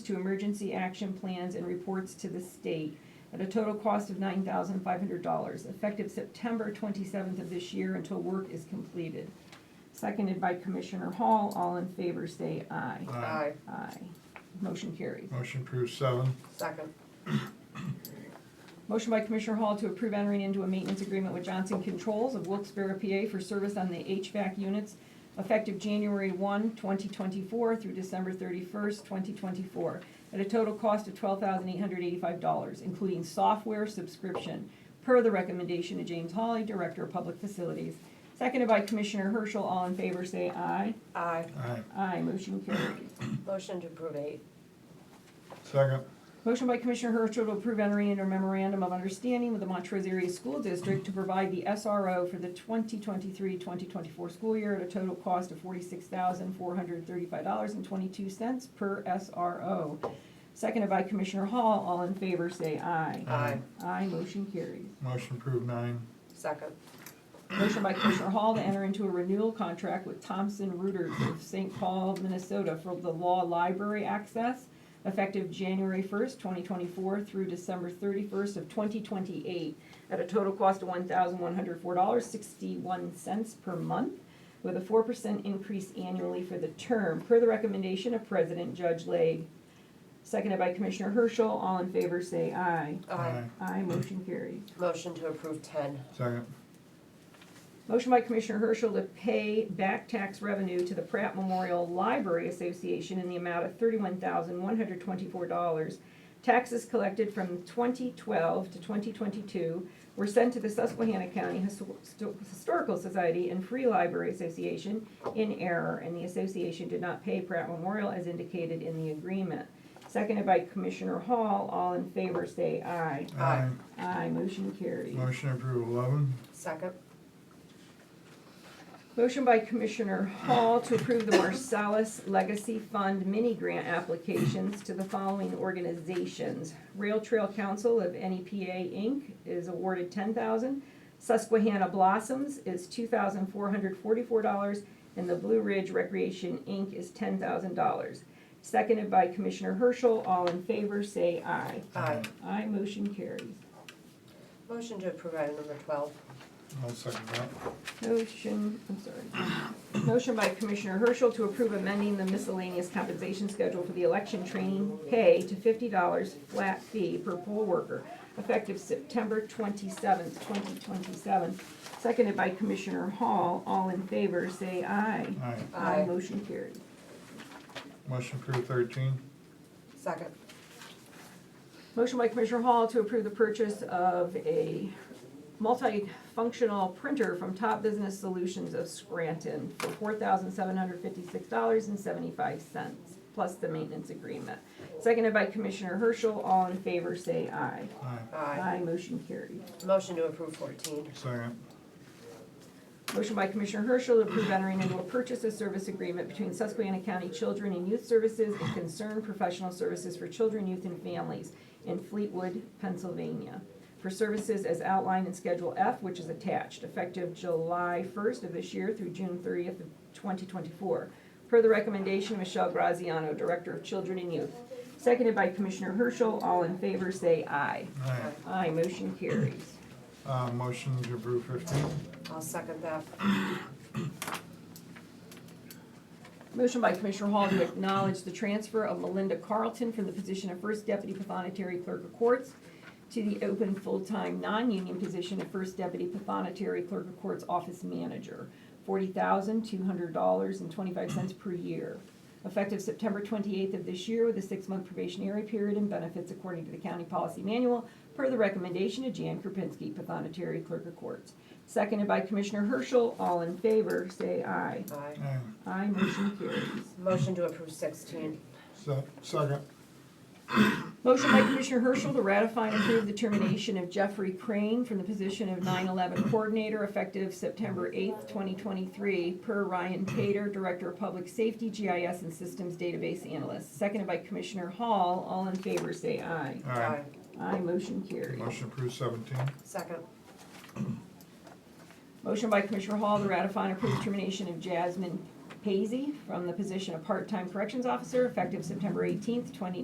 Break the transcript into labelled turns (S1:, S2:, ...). S1: to emergency action plans and reports to the state at a total cost of nine thousand five hundred dollars, effective September twenty-seventh of this year until work is completed. Seconded by Commissioner Hall, all in favor say aye.
S2: Aye.
S1: Aye. Motion carries.
S2: Motion approved seven.
S3: Second.
S1: Motion by Commissioner Hall to approve entering into a maintenance agreement with Johnson Controls of Wilkes-Barre, PA for service on the HVAC units effective January 1, 2024 through December 31st, 2024, at a total cost of $12,885, including software subscription, per the recommendation of James Hawley, Director of Public Facilities. Seconded by Commissioner Herschel. All in favor, say aye.
S3: Aye.
S2: Aye.
S1: Aye. Motion carries.
S3: Motion to approve eight.
S2: Second.
S1: Motion by Commissioner Herschel to approve entering into a memorandum of understanding with the Montrose Area School District to provide the SRO for the 2023-2024 school year at a total cost of $46,435.22 per SRO. Seconded by Commissioner Hall. All in favor, say aye.
S2: Aye.
S1: Aye, motion carries.
S2: Motion approved nine.
S3: Second.
S1: Motion by Commissioner Hall to enter into a renewal contract with Thompson Reuters of St. Paul, Minnesota for the law library access effective January first, twenty twenty-four through December thirty-first of twenty twenty-eight at a total cost of one thousand one hundred four dollars sixty-one cents per month with a four percent increase annually for the term, per the recommendation of President Judge Lake. Seconded by Commissioner Herschel. All in favor, say aye.
S3: Aye.
S1: Aye, motion carries.
S3: Motion to approve ten.
S2: Second.
S1: Motion by Commissioner Herschel to pay back tax revenue to the Pratt Memorial Library Association in the amount of thirty-one thousand, one hundred twenty-four dollars. Taxes collected from twenty twelve to twenty twenty-two were sent to the Susquehanna County Histo- Histo- Historical Society and Free Library Association in error, and the association did not pay Pratt Memorial as indicated in the agreement. Seconded by Commissioner Hall, all in favor say aye.
S3: Aye.
S1: Aye, motion carries.
S2: Motion approved eleven.
S3: Second.
S1: Motion by Commissioner Hall to approve the Marsalis Legacy Fund mini-grant applications to the following organizations. Rail Trail Council of NEPA Inc. is awarded ten thousand. Susquehanna Blossoms is two thousand four hundred forty-four dollars, and the Blue Ridge Recreation Inc. is ten thousand dollars. Seconded by Commissioner Herschel, all in favor, say aye.
S3: Aye.
S1: Aye, motion carries.
S3: Motion to approve item number twelve.
S2: I'll second that.
S1: Motion, I'm sorry. Motion by Commissioner Herschel to approve amending the miscellaneous compensation schedule for the election training pay to fifty dollars flat fee per poll worker, effective September twenty-seventh, twenty twenty-seven. Seconded by Commissioner Hall. All in favor, say aye.
S2: Aye.
S3: Aye.
S1: Motion carried.
S2: Motion approved thirteen.
S3: Second.
S1: Motion by Commissioner Hall to approve the purchase of a multifunctional printer from Top Business Solutions of Scranton for four thousand seven hundred fifty-six dollars and seventy-five cents, plus the maintenance agreement. Seconded by Commissioner Herschel, all in favor say aye.
S2: Aye.
S3: Aye.
S1: Aye, motion carried.
S3: Motion to approve fourteen.
S2: Second.
S1: Motion by Commissioner Herschel to approve entering into a purchase of service agreement between Susquehanna County Children and Youth Services and Concerned Professional Services for Children, Youth, and Families in Fleetwood, Pennsylvania, for services as outlined in Schedule F, which is attached, effective July first of this year through June thirtieth of twenty twenty-four, per the recommendation of Michelle Graziano, Director of Children and Youth. Seconded by Commissioner Herschel, all in favor say aye.
S2: Aye.
S1: Aye, motion carries.
S2: Uh, motion to approve fifteen.
S3: I'll second that.
S1: Motion by Commissioner Hall to acknowledge the transfer of Melinda Carlton from the position of First Deputy Pathonetary Clerk of Courts to the open full-time, non-union position of First Deputy Pathonetary Clerk of Courts Office Manager, forty thousand, two hundred dollars and twenty-five cents per year, effective September twenty-eighth of this year with a six-month probationary period and benefits according to the county policy manual, per the recommendation of Jan Kropinski, Pathonetary Clerk of Courts. Seconded by Commissioner Herschel, all in favor, say aye.
S3: Aye.
S2: Aye.
S1: Aye, motion carries.
S3: Motion to approve sixteen.
S2: Se- second.
S1: Motion by Commissioner Herschel to ratify and approve the termination of Jeffrey Crane from the position of 9/11 Coordinator effective September 8th, 2023, per Ryan Tater, Director of Public Safety, GIS and Systems Database Analyst. Seconded by Commissioner Hall. All in favor, say aye.
S2: Aye.
S1: Aye, motion carried.
S2: Motion approved seventeen.
S3: Second.
S1: Motion by Commissioner Hall to ratify and approve termination of Jasmine Paisy from the position of Part-Time Corrections Officer effective September 18th, 2023,